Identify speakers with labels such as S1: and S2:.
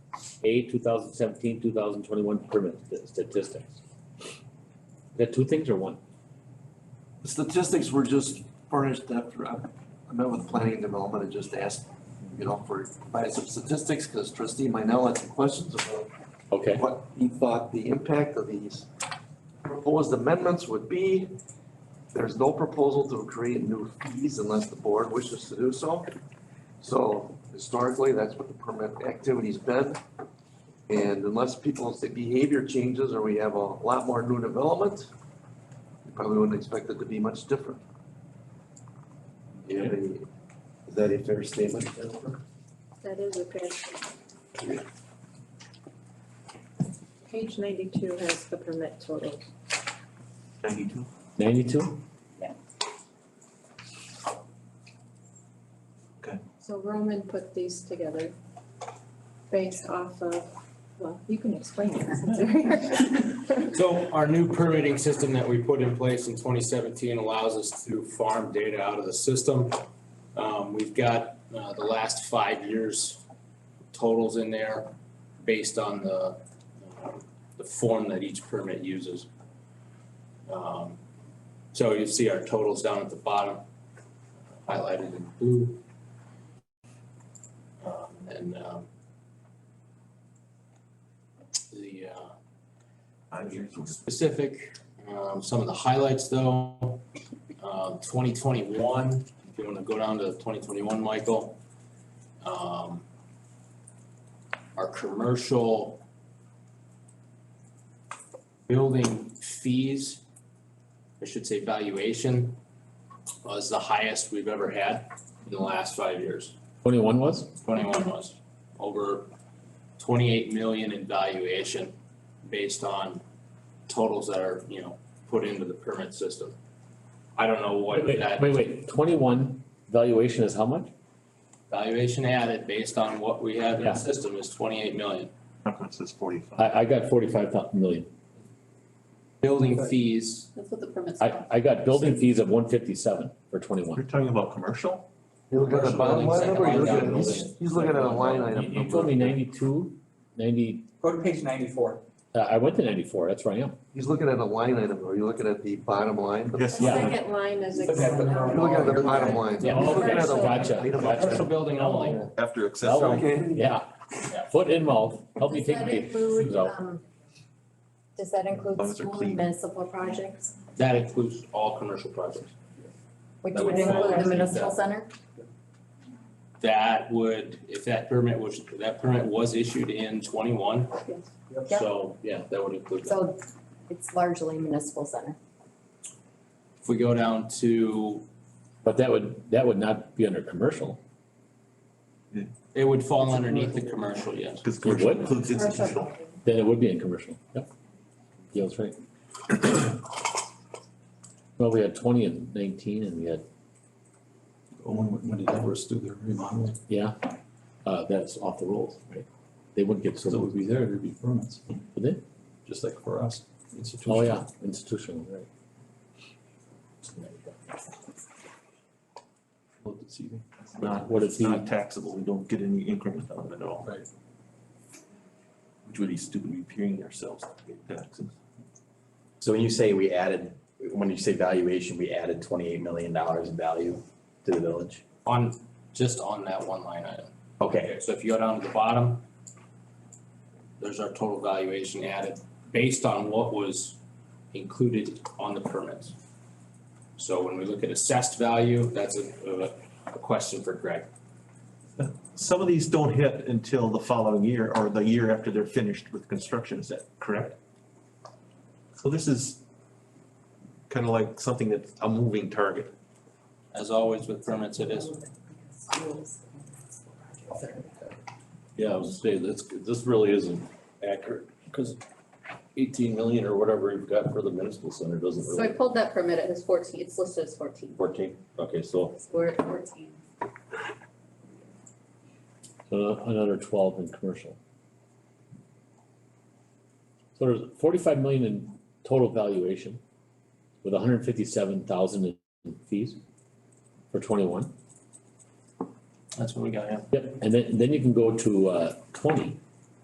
S1: A 2017-2021 permit statistics. Is that two things or one?
S2: The statistics were just furnished after, I I met with planning and development and just asked, you know, for, provided some statistics, because trustee Minell had some questions about
S1: Okay,
S2: what he thought the impact of these proposed amendments would be. There's no proposal to create new fees unless the board wishes to do so. So historically, that's what the permit activity's been. And unless people's behavior changes or we have a lot more new development, you probably wouldn't expect it to be much different. Do you have any- Is that a fair statement, Jennifer?
S3: That is a fair statement. Page ninety-two has the permit total.
S2: Ninety-two.
S1: ninety-two?
S3: So Roman put these together based off of, well, you can explain it since you're here.
S4: So our new permitting system that we put in place in twenty seventeen allows us to farm data out of the system. Um, we've got, uh, the last five years totals in there based on the, um, the form that each permit uses. Um, so you see our totals down at the bottom, highlighted in blue. Um, and, um, the, uh, specific. Um, some of the highlights though, um, twenty twenty-one, if you wanna go down to twenty twenty-one, Michael. Um, our commercial building fees, I should say valuation, was the highest we've ever had in the last five years.
S1: Twenty-one was?
S4: Twenty-one was over twenty-eight million in valuation based on totals that are, you know, put into the permit system. I don't know what
S1: Wait,
S4: that
S1: Wait, wait, twenty-one valuation is how much?
S4: valuation added based on what we have in
S1: Yeah.
S4: the system is twenty-eight million.
S5: Conference is forty-five.
S1: I, I got forty-five million.
S4: Building fees,
S6: That's what the permit's
S1: I,
S6: for.
S1: I got building fees of one fifty-seven for twenty-one.
S5: You're talking about commercial?
S2: You looking at the bottom line number, or you looking at,
S4: Commercial buildings,
S2: he's, he's looking at a line item
S1: You you
S2: number.
S1: told me ninety-two, ninety,
S7: Go to page ninety-four.
S1: uh, I went to ninety-four, that's where I am.
S2: He's looking at a line item, are you looking at the bottom line?
S5: Yes.
S3: The
S1: Yeah.
S3: Second line is.
S7: Look at the
S3: Excel.
S2: You're looking at the bottom line.
S1: Yeah.
S2: He's looking at a line
S1: Gotcha,
S2: item.
S1: gotcha.
S4: commercial building only.
S5: After
S1: accessory-
S2: Okay,
S1: Yeah, foot in mouth, help me
S8: Does
S1: take
S8: that
S1: me.
S8: include,
S1: So-
S8: um, Does that include
S5: long as they're
S8: school
S5: clean.
S8: and municipal projects,
S4: That includes all commercial projects.
S8: which
S4: That
S8: would
S4: would fall
S8: include the
S4: underneath
S8: municipal
S4: that.
S8: center?
S4: That would, if that permit was, that permit was issued in twenty-one,
S8: Yep.
S4: so yeah, that would include that.
S8: So it's largely municipal center.
S4: If we go down to,
S1: But that would, that would not be under commercial.
S4: it would fall underneath the commercial, yes.
S5: Because
S1: commercial
S5: commercial
S1: What?
S5: includes institutional.
S1: Then it would be in commercial, yep. Gail's right. Well, we had twenty and nineteen and we had,
S9: When, when did Everest do their remodeling?
S1: yeah, uh, that's off the rolls, right? They wouldn't get so,
S9: Because it would be there, there'd be permits,
S1: would they?
S9: just like for us,
S1: Oh,
S9: institutional.
S1: yeah, institutional, right.
S9: Looked at CV.
S1: Not what it's
S5: It's not taxable, we don't get any increment on it at all.
S9: Right.
S5: Which would be stupid, we're peering ourselves to pay taxes.
S10: So when you say we added, when you say valuation, we added twenty-eight million dollars in value to the village?
S4: On, just on that one line item.
S10: Okay,
S4: So if you go down to the bottom, there's our total valuation added based on what was included on the permits. So when we look at assessed value, that's a, a- a question for Greg.
S5: Some of these don't hit until the following year or the year after they're finished with construction, is that correct? So this is kind of like something that's a moving target.
S4: As always with permits, it is.
S9: Yeah, I was saying, this, this really isn't accurate, because eighteen million or whatever you've got for the municipal center doesn't
S6: So I
S9: really,
S6: pulled that permit, it was fourteen, it's listed as fourteen,
S9: fourteen, okay, so,
S6: we're at fourteen.
S1: Uh, another twelve in commercial. So there's forty-five million in total valuation with hundred and fifty-seven thousand in fees for twenty-one.
S4: That's what we got, yeah.
S1: Yep, and then, then you can go to, uh, twenty